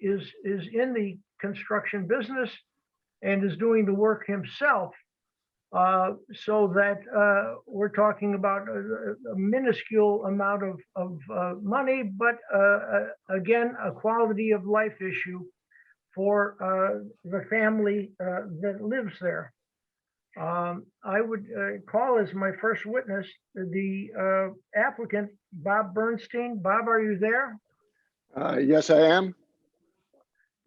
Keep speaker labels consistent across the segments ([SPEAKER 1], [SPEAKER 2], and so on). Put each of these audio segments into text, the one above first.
[SPEAKER 1] is, is in the construction business and is doing the work himself. Uh, so that, uh, we're talking about a a minuscule amount of, of, uh, money, but, uh, uh, again, a quality of life issue for, uh, the family, uh, that lives there. Um, I would, uh, call as my first witness, the, uh, applicant, Bob Bernstein. Bob, are you there?
[SPEAKER 2] Uh, Yes, I am.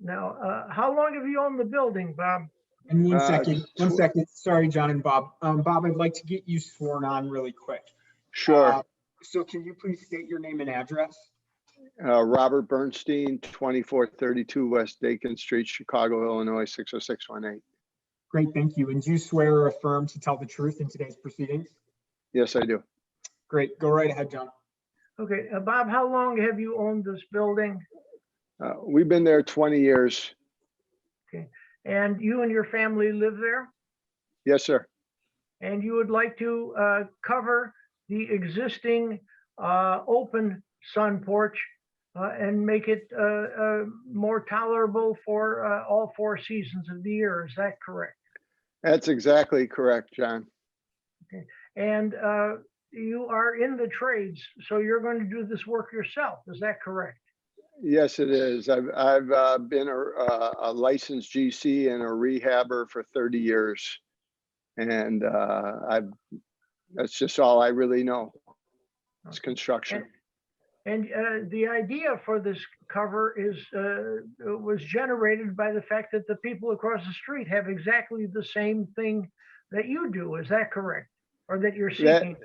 [SPEAKER 1] Now, uh, how long have you owned the building, Bob?
[SPEAKER 3] And one
[SPEAKER 2] Uh,
[SPEAKER 3] second, one
[SPEAKER 2] sure.
[SPEAKER 3] second. Sorry, John and Bob. Um, Bob, I'd like to get you sworn on really quick. Uh,
[SPEAKER 2] Sure.
[SPEAKER 3] So can you please state your name and address?
[SPEAKER 2] Uh, Robert Bernstein, 2432 West Dakin Street, Chicago, Illinois, 60618.
[SPEAKER 3] Great, thank you. And do you swear or affirm to tell the truth in today's proceedings?
[SPEAKER 2] Yes, I do.
[SPEAKER 3] Great, go right ahead, John.
[SPEAKER 1] Okay, uh, Bob, how long have you owned this building?
[SPEAKER 2] Uh, We've been there 20 years.
[SPEAKER 1] And you and your family live there?
[SPEAKER 2] Yes, sir.
[SPEAKER 1] And you would like to uh, cover the existing uh, open sun porch uh, and make it uh, uh, more tolerable for uh, all four seasons of the year, is that correct?
[SPEAKER 2] That's exactly correct, John.
[SPEAKER 1] And uh, you are in the trades, so you're going to do this work yourself, is that correct?
[SPEAKER 2] Yes, it is. I've, I've uh, been a uh, a licensed GC and a rehabber for 30 years. And uh, I've, that's just all I really know. It's construction.
[SPEAKER 1] And uh, the idea for this cover is, uh, was generated by the fact that the people across the street have exactly the same thing that you do, is that correct? Or that you're
[SPEAKER 2] That-
[SPEAKER 1] seeking?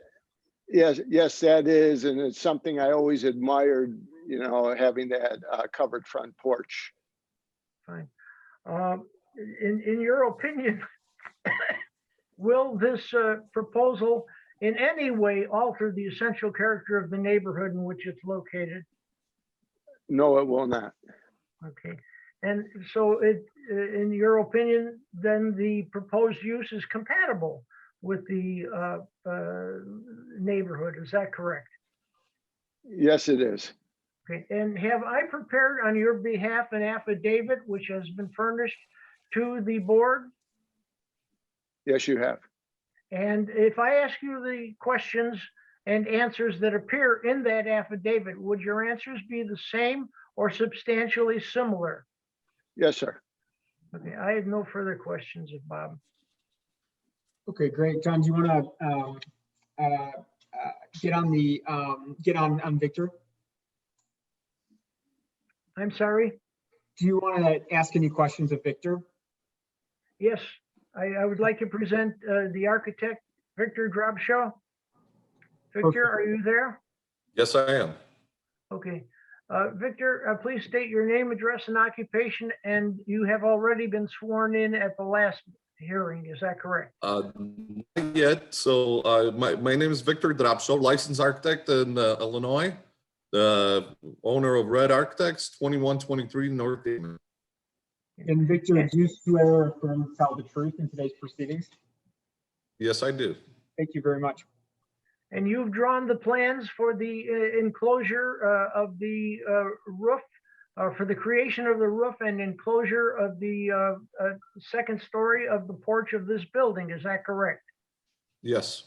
[SPEAKER 2] Yes, yes, that is, and it's something I always admired, you know, having that uh, covered front porch.
[SPEAKER 1] Um, In, in your opinion, will this uh, proposal in any way alter the essential character of the neighborhood in which it's located?
[SPEAKER 2] No, it will not.
[SPEAKER 1] Okay, and so it, uh, in your opinion, then the proposed use is compatible with the uh, uh, neighborhood, is that correct?
[SPEAKER 2] Yes, it is.
[SPEAKER 1] Okay, and have I prepared on your behalf an affidavit which has been furnished to the board?
[SPEAKER 2] Yes, you have.
[SPEAKER 1] And if I ask you the questions and answers that appear in that affidavit, would your answers be the same or substantially similar?
[SPEAKER 2] Yes, sir.
[SPEAKER 1] Okay, I have no further questions of Bob.
[SPEAKER 3] Okay, great. John, do you want to uh, get on the, um, get on, on Victor?
[SPEAKER 1] I'm sorry?
[SPEAKER 3] Do you want to ask any questions of Victor?
[SPEAKER 1] Yes, I, I would like to present uh, the architect, Victor Grabshaw. Victor, are you there?
[SPEAKER 4] Yes, I am.
[SPEAKER 1] Okay. Uh, Victor, uh, please state your name, address, and occupation, and you have already been sworn in at the last hearing, is that correct?
[SPEAKER 4] Uh, Not yet, so uh, my, my name is Victor Drapso, licensed architect in uh, Illinois, the owner of Red Architects, 2123 North Dayton.
[SPEAKER 3] And Victor, do you swear or affirm to tell the truth in today's proceedings?
[SPEAKER 4] Yes, I do.
[SPEAKER 3] Thank you very much.
[SPEAKER 1] And you've drawn the plans for the uh, enclosure uh, of the uh, roof, uh, for the creation of the roof and enclosure of the uh, uh, second story of the porch of this building, is that correct?
[SPEAKER 4] Yes,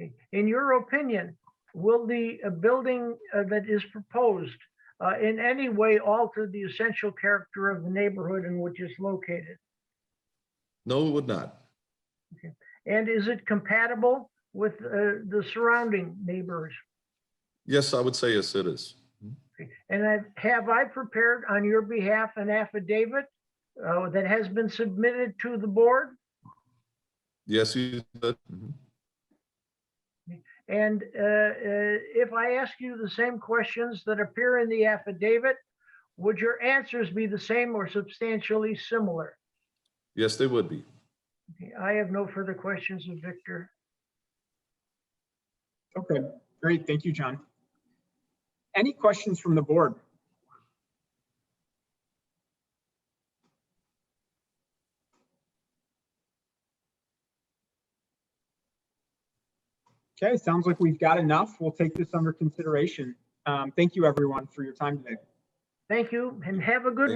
[SPEAKER 1] Okay. In your opinion, will the uh, building uh, that is proposed uh, in any way alter the essential character of the neighborhood in which it's located?
[SPEAKER 4] no, it would not.
[SPEAKER 1] And is it compatible with uh, the surrounding neighbors?
[SPEAKER 4] Yes, I would say yes, it is.
[SPEAKER 1] And I- have I prepared on your behalf an affidavit uh, that has been submitted to the board?
[SPEAKER 4] Yes, you did. Mhm.
[SPEAKER 1] And uh, uh, if I ask you the same questions that appear in the affidavit, would your answers be the same or substantially similar?
[SPEAKER 4] Yes, they would be.
[SPEAKER 1] Okay, I have no further questions of Victor.
[SPEAKER 3] Okay, great. Thank you, John. Any questions from the board? Okay, sounds like we've got enough. We'll take this under consideration. Um, Thank you, everyone, for your time today.
[SPEAKER 1] Thank you and have a good